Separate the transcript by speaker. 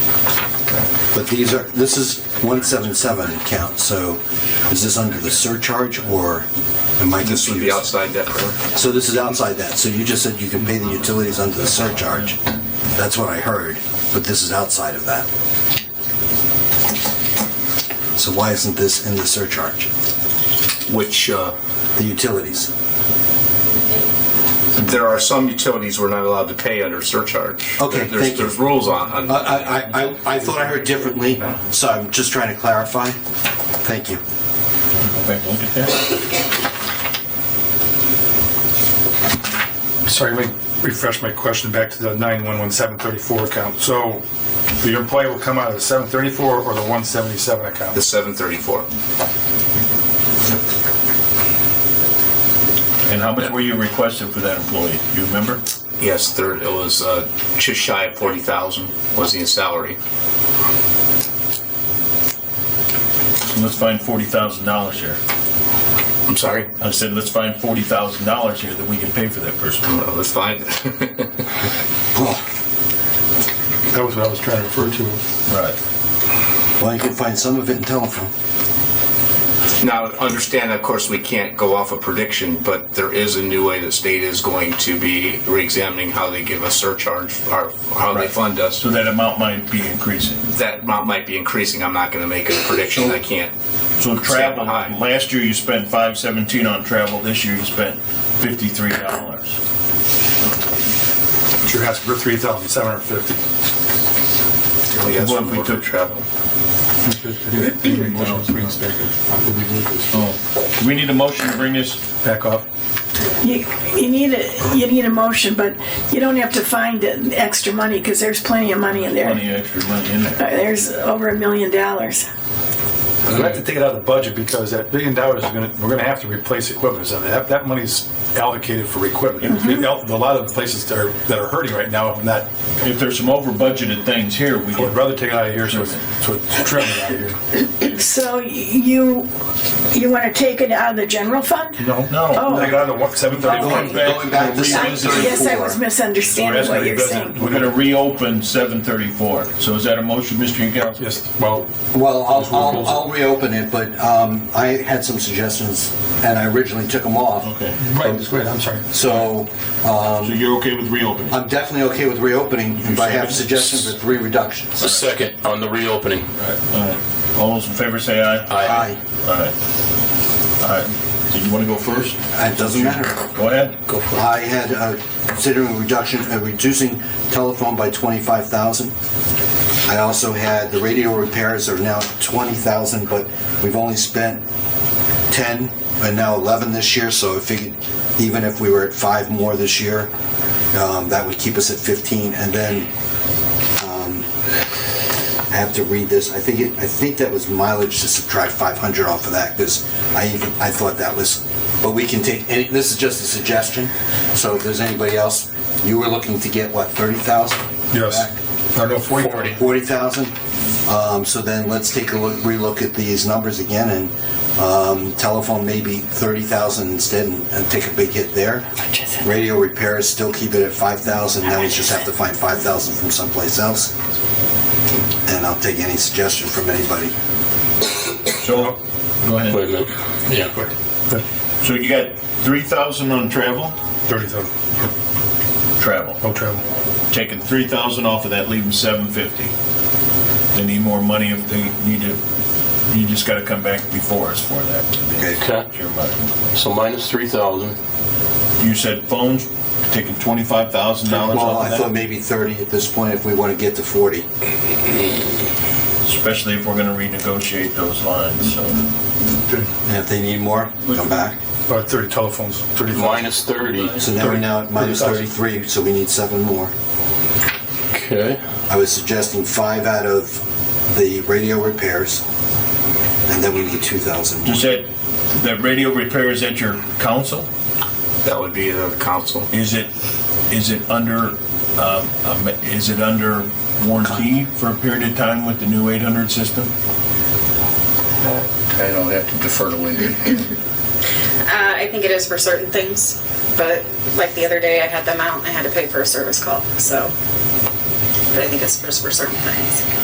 Speaker 1: But these are, this is 177 account, so is this under the surcharge or am I
Speaker 2: This would be
Speaker 1: confused?
Speaker 2: outside that correct?
Speaker 1: So this is outside that, so you just said you can pay the utilities under the surcharge. That's what I heard, but this is outside of that. So why isn't this in the surcharge?
Speaker 2: Which, uh,
Speaker 1: The utilities?
Speaker 2: there are some utilities we're not allowed to pay under surcharge.
Speaker 1: Okay,
Speaker 2: There- there's-
Speaker 1: thank you. Uh,
Speaker 2: There's rules on,
Speaker 1: I,
Speaker 2: on-
Speaker 1: I, I, I thought I heard differently, so I'm just trying to clarify. Thank you.
Speaker 3: Sorry, let me refresh my question back to the 911-734 account. So the employee will come out of the 734 or the 177 account?
Speaker 2: the 734.
Speaker 4: And how much were you requesting for that employee? You remember?
Speaker 2: Yes, there, it was uh, just shy of 40,000 was the salary.
Speaker 4: So let's find forty thousand dollars here.
Speaker 2: I'm sorry?
Speaker 4: I said, let's find forty thousand dollars here that we can pay for that person.
Speaker 2: Well, Let's find it.
Speaker 3: That was what I was trying to refer to.
Speaker 4: Right.
Speaker 1: Well, you can find some of it in telephone.
Speaker 2: Now, understand, of course, we can't go off a prediction, but there is a new way that state is going to be reexamining how they give us surcharge, or how they
Speaker 4: Right.
Speaker 2: fund us.
Speaker 4: So that amount might be increasing.
Speaker 2: That amount might be increasing. I'm not going to make a prediction. I can't.
Speaker 4: So travel,
Speaker 2: behind.
Speaker 4: last year you spent five seventeen on travel, this year you spent fifty-three dollars.
Speaker 3: But you're asking for 3,750.
Speaker 2: We got
Speaker 4: What
Speaker 2: some
Speaker 4: if we
Speaker 2: more for
Speaker 4: took
Speaker 2: travel.
Speaker 4: Oh, do we need a motion to bring this?
Speaker 3: Back off.
Speaker 5: You, you need a, you need a motion, but you don't have to find the extra money because there's plenty of money in there.
Speaker 4: Plenty of extra money in there.
Speaker 5: Uh, There's over a million dollars.
Speaker 3: But We have to take it out of the budget because that billion dollars is gonna, we're gonna have to replace equipment. So that, that money's allocated for equipment. You know, A lot of places that are, that are hurting right now, if not,
Speaker 4: If there's some over budgeted things here, we
Speaker 3: I would
Speaker 4: can,
Speaker 3: rather take it out of here so it's, so it's trimmed out of here.
Speaker 5: So y- you, you want to take it out of the general fund?
Speaker 3: No.
Speaker 4: no.
Speaker 3: Take it out of the 734.
Speaker 1: Going back to
Speaker 5: I guess I
Speaker 1: 734.
Speaker 5: was
Speaker 3: We're
Speaker 5: misunderstanding
Speaker 3: asking
Speaker 5: what
Speaker 3: the
Speaker 5: you're
Speaker 3: president-
Speaker 5: saying.
Speaker 4: we're gonna reopen seven thirty-four. So is that a motion, Mr. Yagowski?
Speaker 3: Yes, well,
Speaker 1: Well, I'll, I'll, I'll reopen it, but um, I had some suggestions, and I originally took them off.
Speaker 4: Okay.
Speaker 3: right, just go ahead, I'm sorry.
Speaker 1: So
Speaker 4: So you're okay with reopening?
Speaker 1: I'm definitely okay with reopening, but I have suggestions for three reductions.
Speaker 6: A second on the reopening.
Speaker 4: All right. All those in favor say aye.
Speaker 6: Aye.
Speaker 1: Aye,
Speaker 4: All right. All right. Did you want to go first?
Speaker 1: it doesn't matter.
Speaker 4: Go ahead. Go for
Speaker 1: I had uh, considering reduction, uh, reducing telephone by 25,000. I also had the radio repairs are now 20,000, but we've only spent 10 and now 11 this year, so I figured even if we were at five more this year, um, that would keep us at 15. And then um, I have to read this. I think it, I think that was mileage to subtract 500 off of that because I even I thought that was. But we can take any. This is just a suggestion. So if there's anybody else, you were looking to get what 30,000. back?
Speaker 3: Yes. I know, 40.
Speaker 1: 40,000. Um, So then let's take a look, relook at these numbers again, and um, telephone maybe 30,000 instead and and take a big hit there. Radio repairs, still keep it at 5,000, now we just have to find 5,000 from someplace else. And I'll take any suggestion from anybody.
Speaker 4: it. So, go ahead.
Speaker 6: Wait a minute. Yeah.
Speaker 4: So you got three thousand on travel,
Speaker 3: 30,000,
Speaker 4: travel.
Speaker 3: no travel.
Speaker 4: Taking three thousand off of that, leaving seven fifty. They need more money if they need to. You just got to come back before us for that.
Speaker 1: Okay.
Speaker 6: Okay.
Speaker 4: Your money.
Speaker 6: So minus 3,000.
Speaker 4: You said phones taking twenty-five thousand dollars
Speaker 1: Well, I
Speaker 4: off
Speaker 1: thought
Speaker 4: of that,
Speaker 1: maybe 30 at this point if we want to get to 40.
Speaker 4: especially if we're going to renegotiate those lines. So.
Speaker 1: And if they need more, come back.
Speaker 3: About 30 Uh, telephones, 30.
Speaker 6: Minus 30.
Speaker 1: So now we're now at minus 33, so we need seven more.
Speaker 6: Okay.
Speaker 1: I was suggesting five out of the radio repairs, and then we need 2,000 more.
Speaker 4: Is that, that radio repair is at your council?
Speaker 2: That would be the council.
Speaker 4: Is it, is it under, um, um, is it under warranty for a period of time with the new 800 system?
Speaker 2: I don't have to defer to Wendy.
Speaker 7: Uh, I think it is for certain things, but like the other day, I had them out and I had to pay for a service call. So, but I think it's just for certain things.